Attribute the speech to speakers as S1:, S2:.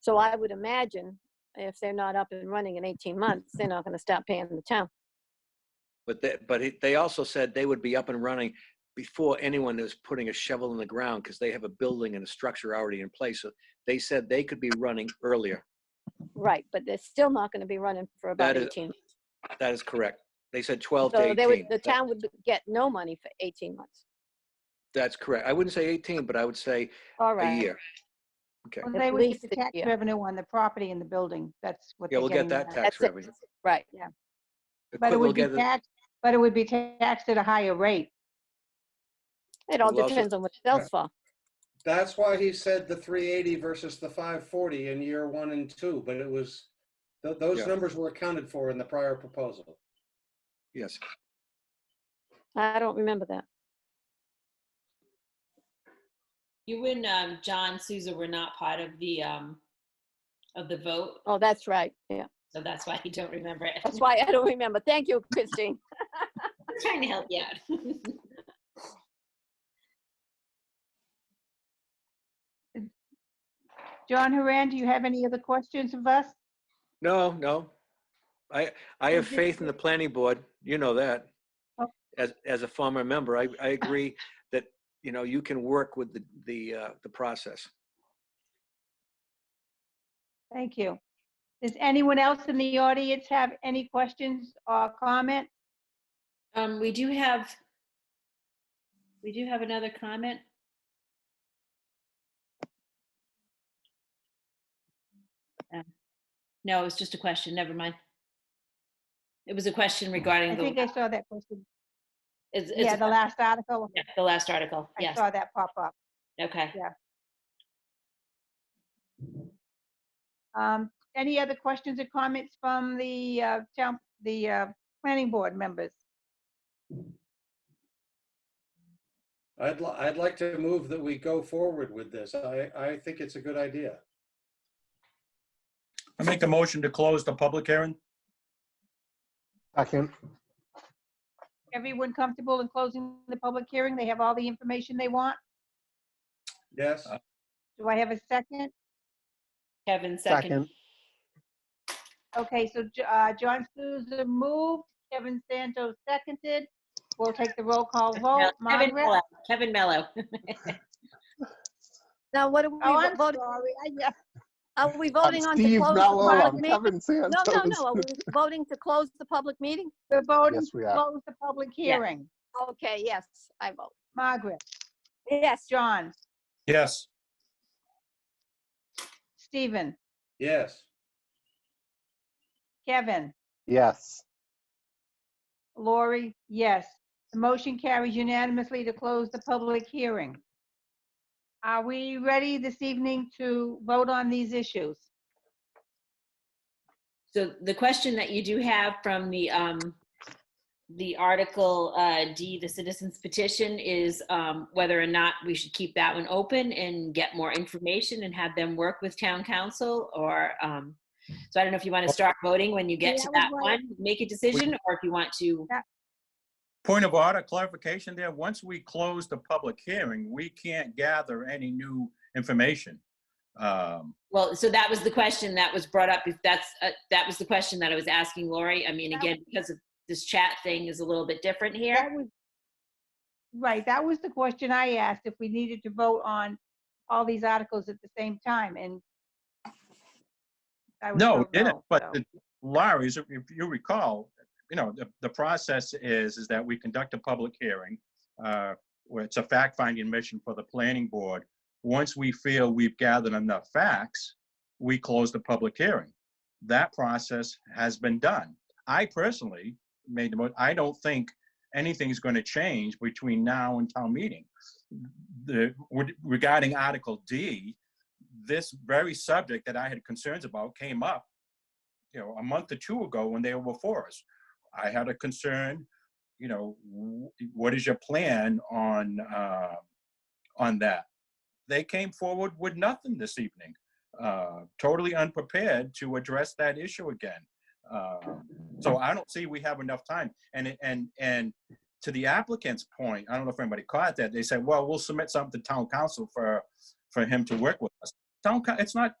S1: So I would imagine if they're not up and running in 18 months, they're not going to stop paying the town.
S2: But they, but it- they also said they would be up and running before anyone is putting a shovel in the ground because they have a building and a structure already in place. So they said they could be running earlier.
S1: Right, but they're still not going to be running for about
S2: That is
S1: 18.
S2: That is correct. They said 12 to
S1: So they would,
S2: 18.
S1: the town would get no money for 18 months.
S2: That's correct. I wouldn't say 18, but I would say
S1: All
S2: a
S1: right.
S2: year. Okay.
S3: Well,
S1: At
S3: They would
S1: least
S3: get the
S1: a
S3: tax
S1: year.
S3: revenue on the property and the building. That's what
S2: Yeah,
S3: they're
S2: we'll
S3: getting.
S2: get that
S3: at.
S2: tax
S1: That's it.
S2: revenue.
S1: Right,
S3: But it
S2: we'll
S3: would be
S2: get it-
S3: taxed, but it would be taxed at a higher rate.
S1: it all
S2: Well, also-
S1: depends on what it sells for.
S4: That's why he said the 380 versus the 540 in year one and two, but it was, th- those
S2: Yeah.
S4: numbers were accounted for in the prior proposal.
S2: Yes.
S1: I don't remember that.
S5: You and um, John Souza were not part of the um, of the vote,
S1: Oh, that's right, yeah.
S5: so that's why you don't remember it.
S1: That's why I don't remember. Thank you, Christine.
S5: I'm trying to help you out.
S3: John Haran, do you have any other questions of us?
S2: No, no. I, I have
S3: Okay.
S2: faith in the planning board. You know that.
S3: Oh.
S2: As, as a former member, I, I agree that, you know, you can work with the, the, uh, the process.
S3: Thank you. Does anyone else in the audience have any questions or comment?
S5: um, we do have we do have another comment. Um, No, it was just a question. Never mind. It was a question regarding
S3: I think
S5: the,
S3: I saw that question.
S5: it's, it's
S3: Yeah, the last article.
S5: yeah, the last article.
S3: I
S5: Yes.
S3: saw that pop up.
S5: Okay.
S3: Um, Any other questions or comments from the uh, town, the uh, planning board members?
S4: I'd, li- I'd like to move that we go forward with this. I, I think it's a good idea.
S6: I make a motion to close the public hearing.
S7: Second,
S3: Everyone comfortable in closing the public hearing? They have all the information they want?
S4: Yes?
S6: Uh,
S3: Do I have a second?
S5: Kevin second.
S7: second,
S3: Okay, so Jo- uh, John Souza moved, Kevin Santos seconded. We'll take the roll call vote.
S5: Kevin Mello.
S3: Margaret?
S5: Kevin Mello.
S1: Now, what are
S3: Oh, I'm
S1: we voting?
S3: sorry. I- yeah.
S1: Are we
S7: I'm
S1: voting on to
S7: Steve
S1: close the
S7: Mello,
S1: public
S7: I'm
S1: meeting?
S7: Kevin Santos.
S1: No, no, no, are we voting to close the public meeting?
S3: We're voting
S7: Yes,
S3: to
S7: we are.
S3: close the public hearing.
S1: Okay, yes, I vote.
S3: Margaret,
S1: Yes,
S3: John,
S6: Yes,
S3: Stephen,
S4: Yes.
S3: Kevin,
S7: Yes,
S3: Lori, yes. The motion carries unanimously to close the public hearing. Are we ready this evening to vote on these issues?
S5: So the question that you do have from the, um, the Article uh, D, the citizens petition, is um, whether or not we should keep that one open and get more information and have them work with town council or, um, so I don't know if you want to start voting when you get
S3: Yeah,
S5: to
S3: I
S5: that
S3: would
S5: one, make a decision, or if you want to,
S6: point of order, clarification there. Once we close the public hearing, we can't gather any new information. Um,
S5: well, so that was the question that was brought up. If that's, uh, that was the question that I was asking Lori. I mean,
S3: That
S5: again, because of this chat thing is a little bit different here.
S3: That was- Right, that was the question I asked, if we needed to vote on all these articles at the same time, and I was
S6: No,
S3: told
S6: it didn't,
S3: so.
S6: but the- Larry, as if if you recall, you know, the, the process is, is that we conduct a public hearing, uh, where it's a fact-finding mission for the planning board. Once we feel we've gathered enough facts, we close the public hearing. That process has been done. I personally made the, mo- I don't think anything's going to change between now and town meeting. The, with- regarding Article D, this very subject that I had concerns about came up you know, a month or two ago when they were before us. I had a concern, you know, w- what is your plan on uh, on that? They came forward with nothing this evening, uh, totally unprepared to address that issue again. Uh, so I don't see we have enough time. And it- and and to the applicant's point, I don't know if anybody caught that. They said, "Well, we'll submit something to town council for for him to work with us." Town, coun- it's not